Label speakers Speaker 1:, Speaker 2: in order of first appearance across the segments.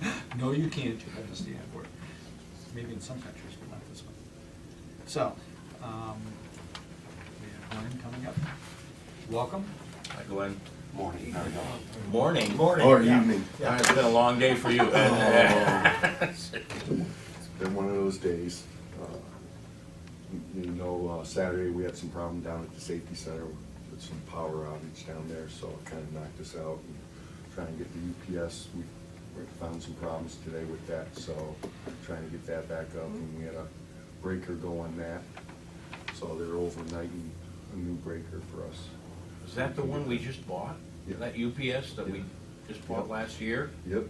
Speaker 1: you can't, you have to stay at work. Maybe in some countries, but not this one. So, um, we have Glenn coming up. Welcome.
Speaker 2: Hi, Glenn.
Speaker 3: Morning, how are you
Speaker 2: Morning.
Speaker 3: Or
Speaker 2: Yeah.
Speaker 3: evening.
Speaker 2: Yeah, It's been a long day for you.
Speaker 3: Oh. It's been one of those days. Uh, You know, uh, Saturday, we had some problem down at the safety center with some power outage down there, so it kind of knocked us out. And Trying to get the UPS, we we found some problems today with that, so trying to get that back up. And we had a breaker go on that, so they're overnighting a new breaker for us.
Speaker 2: Is that the one we just bought?
Speaker 3: Yeah.
Speaker 2: That UPS that we
Speaker 3: Yeah.
Speaker 2: just bought
Speaker 3: Yeah.
Speaker 2: last year,
Speaker 3: Yep.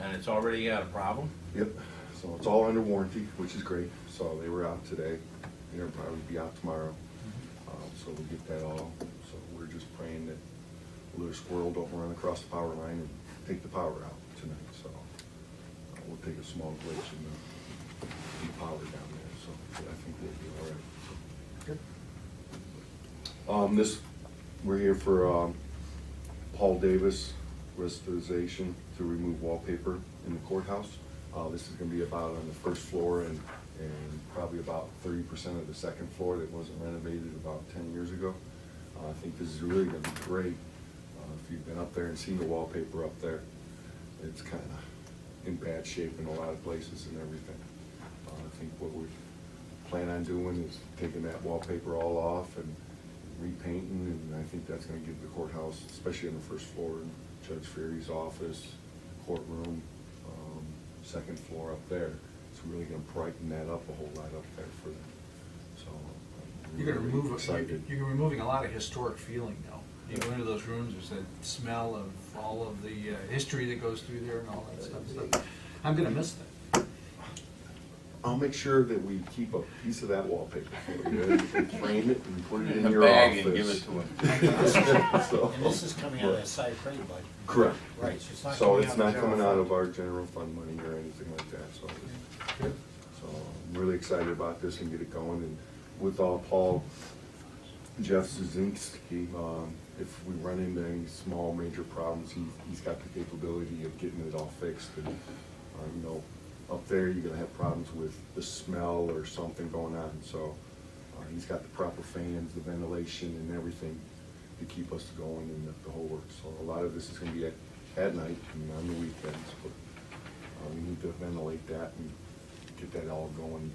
Speaker 2: and it's already had a problem?
Speaker 3: Yep, so it's all under warranty, which is great, so they were out today, and they'll probably be out tomorrow. Um, So we'll get that all, so we're just praying that little squirrel don't run across the power line and take the power out tonight, so. uh, We'll take a small glitch and uh, depower down there, so I think we'll be all right, so.
Speaker 1: Good.
Speaker 3: Um, this, we're here for, um, Paul Davis restoration to remove wallpaper in the courthouse. Uh, this is gonna be about on the first floor and, and probably about thirty percent of the second floor that wasn't renovated about ten years ago. Uh, I think this is really gonna be great, uh, if you've been up there and seen the wallpaper up there. It's kinda in bad shape in a lot of places and everything. Uh, I think what we plan on doing is taking that wallpaper all off and repainting, and I think that's gonna give the courthouse, especially on the first floor, and Judge Ferry's office, courtroom, um, second floor up there, it's really gonna brighten that up a whole lot up there for them, so. um, I'm
Speaker 1: You're gonna
Speaker 3: really
Speaker 1: remove, you're
Speaker 3: Excited.
Speaker 1: you're removing a lot of historic feeling though. You go into those rooms, there's that smell of all of the uh, history that goes through there and all that stuff. So I'm gonna miss that.
Speaker 3: I'll make sure that we keep a piece of that wallpaper for you, and frame it and put it
Speaker 2: In
Speaker 3: in
Speaker 2: a
Speaker 3: your
Speaker 2: bag
Speaker 3: office.
Speaker 2: and give it to him.
Speaker 3: So-
Speaker 4: And this is coming out of that side frame budget.
Speaker 3: Correct.
Speaker 4: Right, so it's not
Speaker 3: So
Speaker 4: coming
Speaker 3: it's
Speaker 4: out of
Speaker 3: not
Speaker 4: the
Speaker 3: coming
Speaker 4: general
Speaker 3: out
Speaker 4: fund.
Speaker 3: of our general fund money or anything like that, so,
Speaker 1: Good.
Speaker 3: so I'm really excited about this and get it going, and with all Paul, Jeff Zuzinski, um, if we run into any small major problems, he, he's got the capability of getting it all fixed, and, uh, you know, up there, you're gonna have problems with the smell or something going on, so, uh, he's got the proper fans, the ventilation and everything to keep us going and the- the whole works. So a lot of this is gonna be at, at night and on the weekends, but uh, we need to ventilate that and get that all going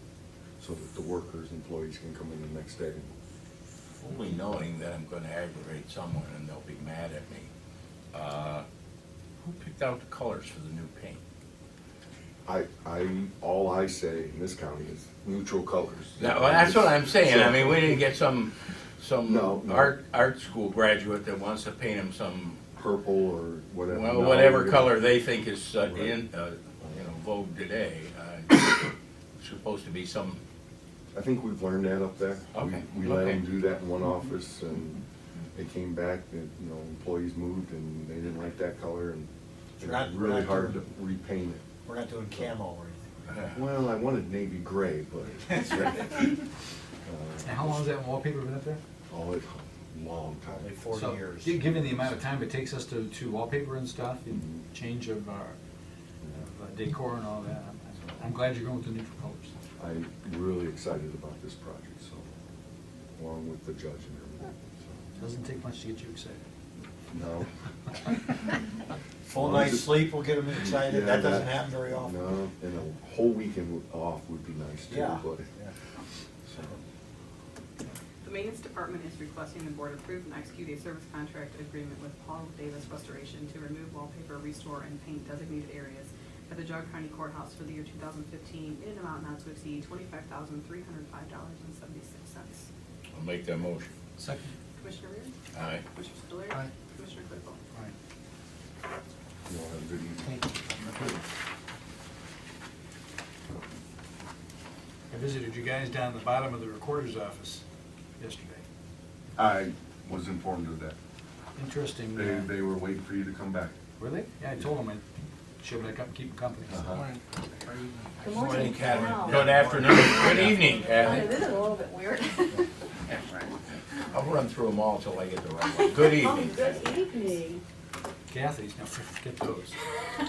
Speaker 3: so that the workers, employees can come in the next day.
Speaker 2: Fully knowing that I'm gonna aggravate someone and they'll be mad at me. Uh, Who picked out the colors for the new paint?
Speaker 3: I, I, all I say in this county is neutral colors.
Speaker 2: No, well, that's what I'm saying, I
Speaker 3: So-
Speaker 2: mean, we didn't get some, some
Speaker 3: No, no.
Speaker 2: art, art school graduate that wants to paint him some
Speaker 3: Purple or whatever.
Speaker 2: Well,
Speaker 3: No,
Speaker 2: whatever
Speaker 3: you're gonna-
Speaker 2: color they think is uh,
Speaker 3: Right.
Speaker 2: in, uh, you know, vogue today, uh, it's supposed to be some,
Speaker 3: I think we've learned that up there. We-
Speaker 2: Okay,
Speaker 3: We let
Speaker 2: okay.
Speaker 3: them do that in one office, and they came back, and, you know, employees moved, and they didn't like that color, and it
Speaker 4: We're not-
Speaker 3: was
Speaker 4: we're
Speaker 3: really
Speaker 4: not
Speaker 3: hard to
Speaker 4: doing-
Speaker 3: repaint it.
Speaker 4: We're not doing camo or anything.
Speaker 2: uh,
Speaker 3: Well, I wanted navy gray, but,
Speaker 1: Now, how long has that wallpaper been up there?
Speaker 3: oh, it's a long
Speaker 4: Only
Speaker 3: time.
Speaker 4: forty
Speaker 1: So,
Speaker 4: years.
Speaker 1: gi- Given the amount of time it takes us to, to wallpaper and stuff and change of uh, our of our uh, decor and all that, I'm- I'm glad you're going with the neutral colors.
Speaker 3: I'm really excited about this project, so, along with the judge and everything,
Speaker 1: Doesn't take much to get you excited.
Speaker 3: so. No.
Speaker 4: Full night's sleep will get them excited,
Speaker 3: Yeah,
Speaker 4: that doesn't happen very often.
Speaker 3: No, and a whole weekend off would be nice too,
Speaker 4: Yeah.
Speaker 3: but,
Speaker 4: yeah.
Speaker 3: so.
Speaker 5: The maintenance department is requesting the board approve and execute a service contract agreement with Paul Davis Restoration to remove wallpaper, restore, and paint designated areas at the Jog County Courthouse for the year two thousand fifteen in an amount not to exceed twenty-five thousand three hundred five dollars and seventy-six cents.
Speaker 2: I'll make that motion.
Speaker 1: Second.
Speaker 5: Commissioner Rea?
Speaker 2: Aye.
Speaker 5: Commissioner Spudler?
Speaker 1: Aye.
Speaker 5: Commissioner Clickwell?
Speaker 1: All right.
Speaker 3: You all have a good evening.
Speaker 1: I visited you guys down at the bottom of the recorder's office yesterday.
Speaker 3: I was informed of that.
Speaker 1: Interesting.
Speaker 3: They,
Speaker 1: uh,
Speaker 3: they were waiting for you to come back.
Speaker 1: Were they? Yeah, I told them I'd show them, I'd come keep them company.
Speaker 3: Uh-huh.
Speaker 6: Good morning. Wow.
Speaker 2: Good afternoon, good evening,
Speaker 6: Okay, This
Speaker 2: Kathy.
Speaker 6: is a little bit weird.
Speaker 2: I'll run through them all till I get the right one. Good
Speaker 6: Oh,
Speaker 2: evening. Kathy.
Speaker 6: Good evening.
Speaker 1: Kathy's, now forget those.